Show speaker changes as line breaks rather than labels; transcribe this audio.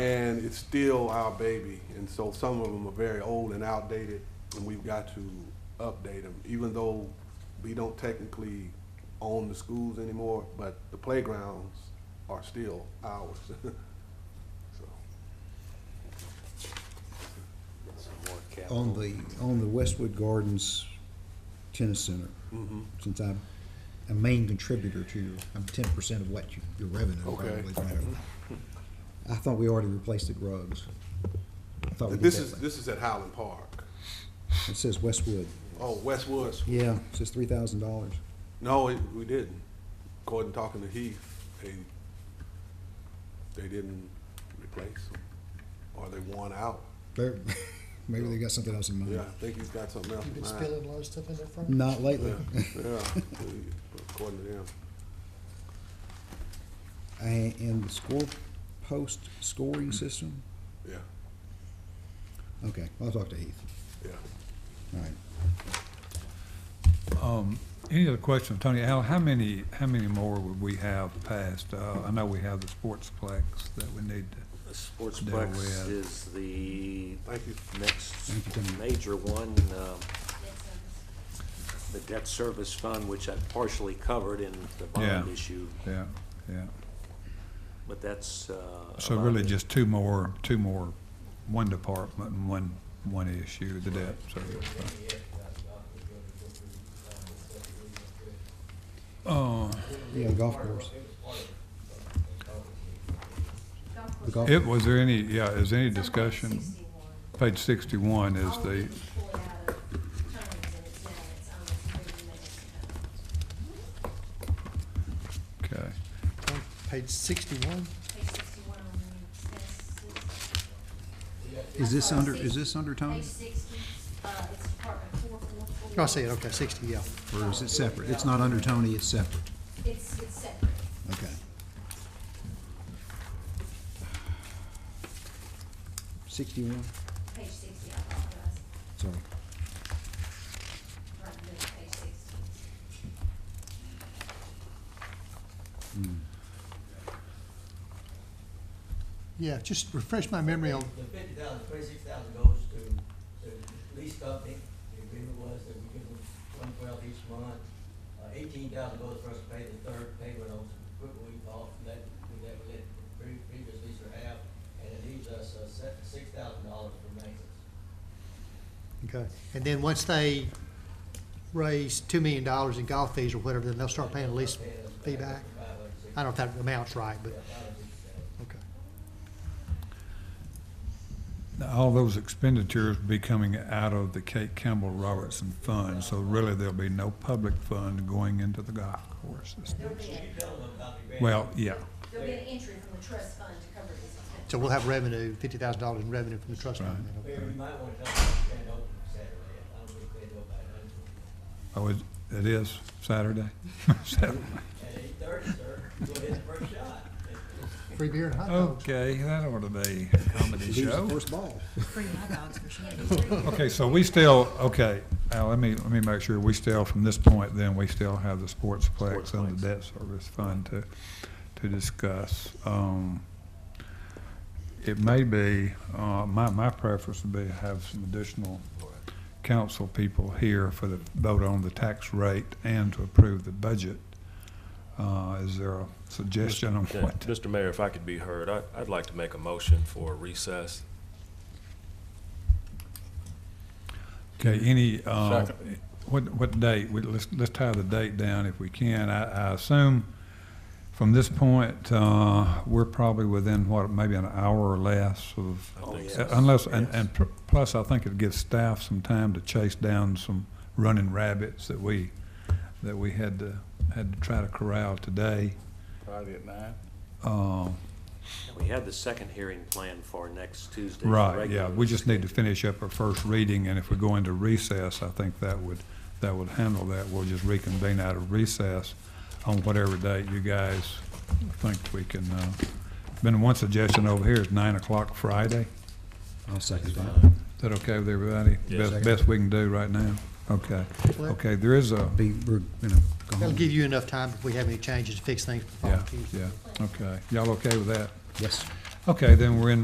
and it's still our baby. And so some of them are very old and outdated, and we've got to update them, even though we don't technically own the schools anymore, but the playgrounds are still ours. So,
on the, on the Westwood Gardens Tennis Center,
mhm.
since I'm a main contributor to your, I'm ten percent of what you, your revenue
Okay. Mm-hmm.
probably. from it. I thought we already replaced the rugs. I thought we did
This is,
that.
this is at Highland Park.
It says Westwood.
Oh, Westwood.
Yeah, it says three thousand dollars.
No, it, we didn't. According to talking to Heath, they, they didn't replace them, or they won out.
They're, maybe they got something else in mind.
Yeah, I think he's got something else
You've
in
been
mind.
spilling a lot of stuff in there front.
Not lately.
Yeah, yeah, according to them.
And, and the score post scoring system?
Yeah,
Okay, I'll talk to Heath.
yeah.
All right.
Um, Any other questions, Tony? Al, how many, how many more would we have passed? Uh, I know we have the sportsplex that we need to,
The
Oh, There we
Sportsplex
have-
is the
Thank you.
next
Thank you, Tony.
major one, um, the debt service fund, which I partially covered in the bond
Yeah.
issue,
yeah, yeah.
but that's. uh,
So
about
really
it.
just two more, two more, one department and one, one issue, the debt service. Uh,
Yeah, the golf course. The golf,
It, was there any, yeah, is there any discussion? Page sixty-one is the, okay.
On Page sixty-one,
is this under, is this under Tony?
Page sixty, uh, it's Department four four four.
Oh, I see it, okay, sixty, yeah.
Or is it separate? It's not under Tony, it's separate.
It's, it's separate.
Okay. Sixty-one,
Page sixty, I apologize.
sorry.
Right, no, page sixty.
Yeah, just refresh my memory on,
The fifty thousand, twenty-six thousand goes to the lease company, the agreement was that we give them one twelve each month. Uh, eighteen thousand goes for us to pay the third payment on some equipment we bought, from that, we never let the pre- previous leaser have, and it leaves us, uh, six thousand dollars for maintenance.
okay, and then once they raise two million dollars in golf fees or whatever, then they'll start paying the lease fee back? I don't know if that amount's right, but, okay.
Now, All those expenditures be coming out of the Kate Campbell Robertson Fund, so really there'll be no public fund going into the golf courses.
There'll be, a-
Well, yeah,
there'll be an entry from the trust fund to cover this. expense.
So we'll have revenue, fifty thousand dollars in revenue from the trust fund. then, okay.
Mayor, you might wanna help us stand open Saturday, I don't think they know about it,
oh, it, it is Saturday? Saturday.
at eight thirty, sir, go ahead and first shot.
Free beer and hot dogs.
Okay, that ought to be a comedy
Who's the
show.
first ball?
Okay, so we still, okay, Al, let me, let me make sure, we still, from this point then, we still have the sportsplex and the debt service fund to, to discuss. Um, It may be, uh, my, my preference would be to have some additional council people here for the vote on the tax rate and to approve the budget. Uh, is there a suggestion on
Yeah,
what?
Mr. Mayor, if I could be heard, I- I'd like to make a motion for recess.
Okay, any, uh, what, what date? We- Let's, let's tie the date down if we can. I, I assume from this point, uh, we're probably within, what, maybe an hour or less of,
Oh,
think
yes.
so.
unless, and,
Yes.
and pr- plus, I think it gives staff some time to chase down some running rabbits that we, that we had to, had to try to corral today.
Friday at nine?
Uh,
We had the second hearing planned for next Tuesday.
Right, yeah, we just need to finish up our first reading, and if we go into recess, I think that would, that would handle that. We'll just reconvene out of recess on whatever date you guys think we can, uh, been one suggestion over here is nine o'clock Friday.
I'll second that.
Is that okay with everybody?
Yes.
Best, best we can do right now? Okay, okay, there is a,
Be, we're, you know, go
That'll
home.
give you enough time if we have any changes to fix things before
yeah,
Tuesday.
yeah, okay. Y'all okay with that?
Yes.
Okay, then we're in